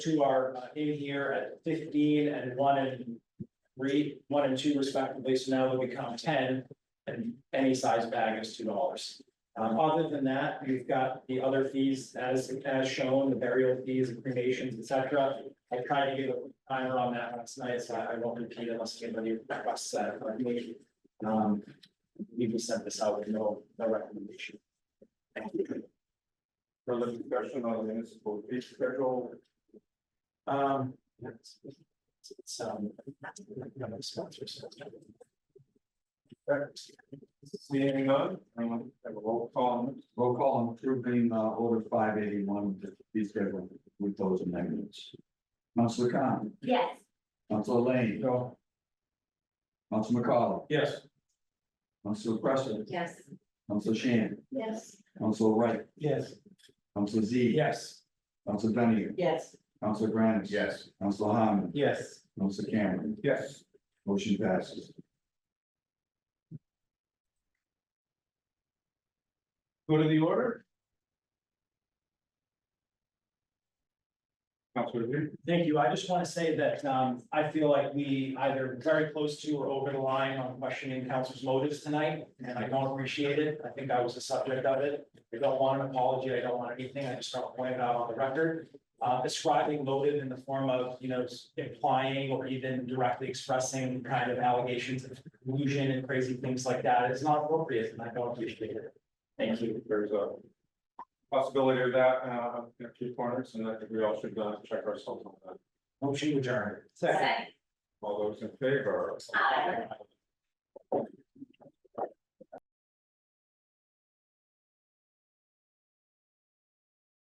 Two are uh, in here at fifteen and one and three, one and two respectively, so now they'll become ten. And any size bag is two dollars. Um, other than that, you've got the other fees as as shown, the burial fees, and cremations, et cetera. I tried to give a timer on that last night, so I I won't repeat unless anybody requests that, but maybe. Um, we just sent this out with no, no recommendation. For the discussion on the municipal fee schedule, Um. it's- it's- it's, um, you know, sponsors. seeing none, um, have a roll call. Roll call on approving uh order five eighty one, the fee schedule with those amendments. Council Khan, Yes, Council Lane, No. Council McCollum, Yes. Council Preston, yes, Council Shan, yes, Council Wright, Yes. Council Z. Yes, Council Dunning, yes, Council Grant. Yes. Council Harmon, yes. Council Cameron, Yes. motion passes. Go to the order. Councilor Lee. Thank you. I just want to say that um I feel like we either very close to or over the line on questioning council's motives tonight. And I don't appreciate it. I think I was the subject of it. I don't want an apology. I don't want anything. I just want to point it out on the record. Uh ascribing motive in the form of, you know, implying or even directly expressing kind of allegations of collusion and crazy things like that is not appropriate and I don't appreciate it. Thank you. There's a possibility of that, uh, in a few corners, and I think we all should uh, check ourselves on that. Motion adjourned. second, All those in favor? Aye.